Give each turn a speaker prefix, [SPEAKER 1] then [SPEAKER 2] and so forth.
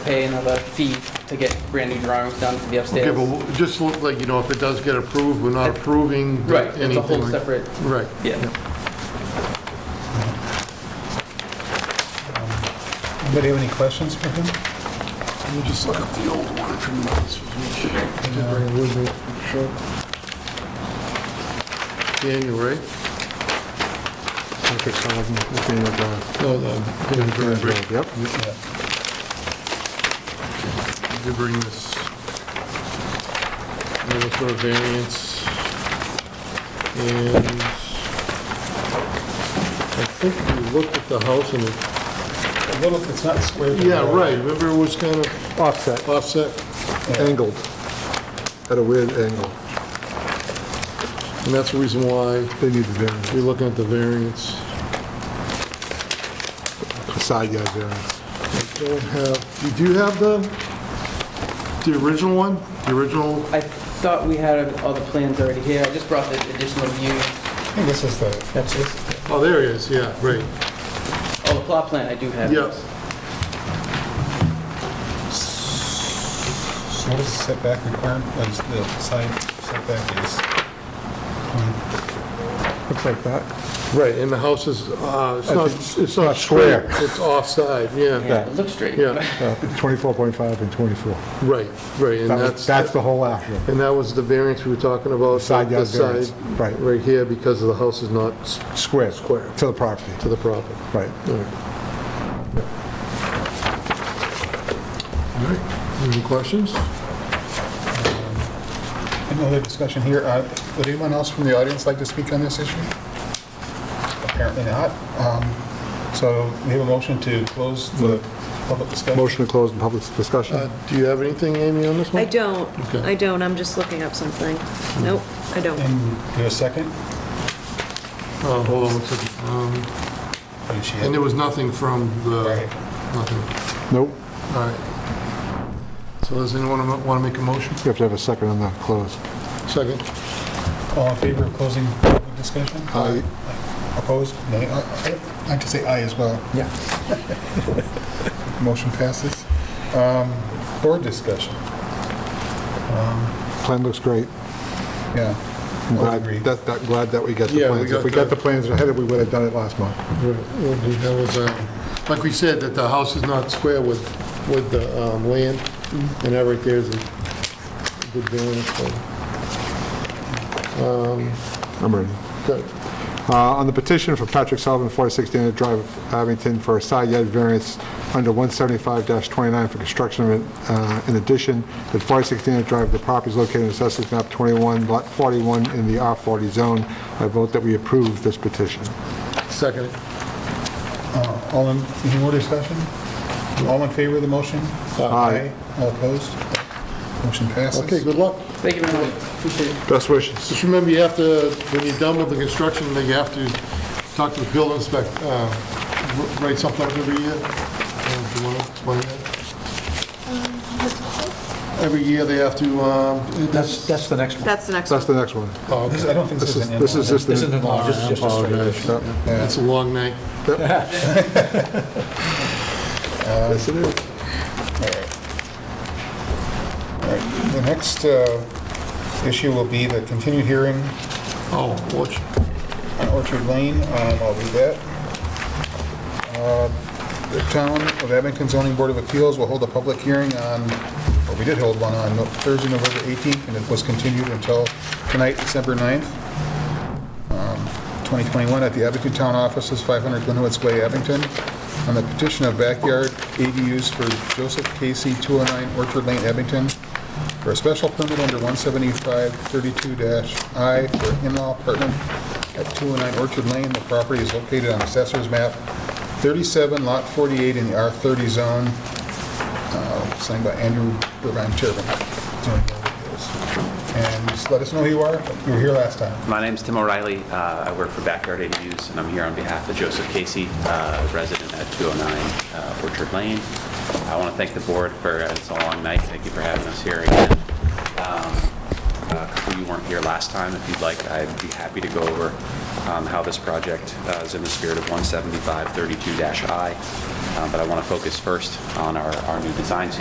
[SPEAKER 1] pay another fee to get brand new drawings done for the
[SPEAKER 2] Okay,
[SPEAKER 1] upstairs.
[SPEAKER 2] but w- just look like, you know, if it does get approved, we're not approving
[SPEAKER 1] Right, it's a
[SPEAKER 2] anything
[SPEAKER 1] whole
[SPEAKER 2] like-
[SPEAKER 1] separate,
[SPEAKER 2] Right.
[SPEAKER 1] yeah.
[SPEAKER 3] Anybody have any questions for him?
[SPEAKER 2] Let me just look up the old one from last week. Daniel, right? No, the. Daniel Bradbury.
[SPEAKER 4] Yep.
[SPEAKER 2] Did you bring this? Notice for variance. And I think we looked at the house and, it-
[SPEAKER 3] A little, it's not squared.
[SPEAKER 2] yeah, right, remember it was kind of
[SPEAKER 4] Offset,
[SPEAKER 2] offset?
[SPEAKER 4] angled, at a weird angle.
[SPEAKER 2] And that's the reason why
[SPEAKER 4] They need the variance,
[SPEAKER 2] we're looking at the variance.
[SPEAKER 4] a side yard variance.
[SPEAKER 2] I don't have, do you have the, the original one? The original?
[SPEAKER 1] I thought we had all the plans already here, I just brought the additional view.
[SPEAKER 3] I think this is the,
[SPEAKER 1] That's it.
[SPEAKER 2] Oh, there it is, yeah, right.
[SPEAKER 1] Oh, the plot plan I do have.
[SPEAKER 2] Yes.
[SPEAKER 3] so what is the setback requirement, uh, the side setback is? um,
[SPEAKER 4] Looks like that.
[SPEAKER 2] Right, and the house is, uh, it's not, it's not
[SPEAKER 4] square.
[SPEAKER 2] square, it's offside, yeah,
[SPEAKER 1] Yeah, It looks straight.
[SPEAKER 2] yeah,
[SPEAKER 4] Uh, 24.5 and 24.
[SPEAKER 2] right, right, and
[SPEAKER 4] That was-
[SPEAKER 2] that's,
[SPEAKER 4] That's the whole action.
[SPEAKER 2] and that was the variance we were talking about.
[SPEAKER 4] Side yard
[SPEAKER 2] this side,
[SPEAKER 4] variance, right.
[SPEAKER 2] Right here, because the house is not s-
[SPEAKER 4] Square.
[SPEAKER 2] Square.
[SPEAKER 4] To the property,
[SPEAKER 2] to the property.
[SPEAKER 4] right.
[SPEAKER 2] All right. All right, any questions?
[SPEAKER 3] Any other discussion here? Uh, Would anyone else from the audience like to speak on this issue? Apparently not. Um, So we have a motion to close the
[SPEAKER 2] Mm.
[SPEAKER 3] public discussion.
[SPEAKER 4] Motion to close the public
[SPEAKER 2] Uh,
[SPEAKER 4] discussion.
[SPEAKER 2] Do you have anything, Amy, on this one?
[SPEAKER 5] I don't,
[SPEAKER 2] Okay.
[SPEAKER 5] I don't, I'm just looking up something. Nope, I don't.
[SPEAKER 3] And do a second?
[SPEAKER 2] Uh, Hold on one second. Um,
[SPEAKER 3] And she-
[SPEAKER 2] And there was nothing from the,
[SPEAKER 3] Right.
[SPEAKER 2] nothing,
[SPEAKER 4] Nope,
[SPEAKER 2] all right. So does anyone want to make a motion?
[SPEAKER 4] you have to have a second on the close.
[SPEAKER 2] Second.
[SPEAKER 3] All in favor of closing public discussion?
[SPEAKER 4] Aye.
[SPEAKER 3] Opposed? Nay. Uh, I- I'd like to say aye as well.
[SPEAKER 4] Yeah.
[SPEAKER 3] Motion passes. Um, Board discussion,
[SPEAKER 4] Plan looks great.
[SPEAKER 3] yeah.
[SPEAKER 4] I'm
[SPEAKER 3] All
[SPEAKER 4] glad,
[SPEAKER 3] agree.
[SPEAKER 4] that, that- glad that we got the
[SPEAKER 2] Yeah, we
[SPEAKER 4] plans. If
[SPEAKER 2] got
[SPEAKER 4] we got
[SPEAKER 2] the-
[SPEAKER 4] the plans ahead, we would have done it last month.
[SPEAKER 2] Well, That was, uh, like we said, that the house is not square with, with the um, land, and that right there is a good variance. so,
[SPEAKER 4] I'm ready.
[SPEAKER 2] good.
[SPEAKER 4] Uh, On the petition for Patrick Sullivan, 46 Dana Drive, Abington, for a side yard variance under 175-29 for construction of it. Uh, In addition, at 46 Dana Drive, the property is located in Assessors Map 21, Lot 41, in the R40 zone. I vote that we approve this petition.
[SPEAKER 2] Second.
[SPEAKER 3] Uh, All in, any more discussion? All in favor of the motion?
[SPEAKER 4] Aye.
[SPEAKER 3] All opposed? Motion passes.
[SPEAKER 2] Okay, good luck.
[SPEAKER 1] Thank you very much, appreciate it.
[SPEAKER 4] Best wishes.
[SPEAKER 2] Just remember, you have to, when you're done with the construction, that you have to talk to the building inspector, write something up every year. Uh, Do you want to explain that? Every year, they have to, um,
[SPEAKER 6] That's, that's the next one.
[SPEAKER 5] That's the next
[SPEAKER 4] That's the
[SPEAKER 5] one.
[SPEAKER 4] next one.
[SPEAKER 2] oh,
[SPEAKER 3] This- I don't think this
[SPEAKER 4] This
[SPEAKER 3] is
[SPEAKER 4] is,
[SPEAKER 3] an in-law.
[SPEAKER 4] this is
[SPEAKER 6] This isn't law, just,
[SPEAKER 4] just the...
[SPEAKER 6] just a straight issue.
[SPEAKER 4] Yep.
[SPEAKER 2] it's a long night.
[SPEAKER 4] Yes, it is.
[SPEAKER 3] All right. The next uh, issue will be the continued hearing
[SPEAKER 2] Oh, watch.
[SPEAKER 3] on Orchard Lane. Um, I'll do that. Uh, The Town of Abington Zoning Board of Appeals will hold a public hearing on, or we did hold one on No- Thursday, November 18th, and it was continued until tonight, December 9th, um, 2021, at the Abington Town Offices, 500 Glenwood's Way, Abington, on the petition of backyard ADUs for Joseph Casey, 209 Orchard Lane, Abington, for a special permit under 175-32-I for in-law apartment at 209 Orchard Lane. The property is located on Assessor's Map 37, Lot 48, in the R30 zone, uh, signed by Andrew Irvine Turbin. And just let us know who you are. You were here last time.
[SPEAKER 7] My name's Tim O'Reilly. Uh, I work for Backyard ADUs, and I'm here on behalf of Joseph Casey, uh, resident at 209 uh, Orchard Lane. I want to thank the board for, uh, it's a long night. Thank you for having us here again. Um, uh, A couple of you weren't here last time. If you'd like, I'd be happy to go over um, how this project uh, is in the spirit of 175-32-I. Uh, But I want to focus first on our our new designs here.